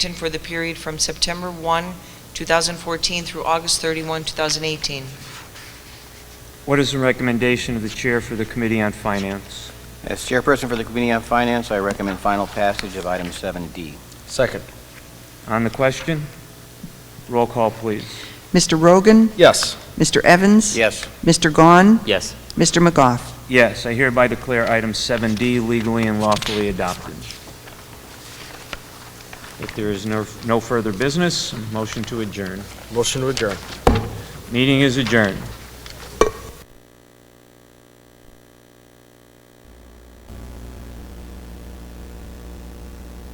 and for the period from September 1, 2014 through August 31, 2018. What is the recommendation of the Chair for the Committee on Finance? As chairperson for the Committee on Finance, I recommend final passage of item 7D. Second. On the question? Roll call, please. Mr. Rogan? Yes. Mr. Evans? Yes. Mr. Gahn? Yes. Mr. McGough? Yes, I hereby declare item 7D legally and lawfully adopted. If there is no no further business, motion to adjourn. Motion to adjourn. Meeting is adjourned.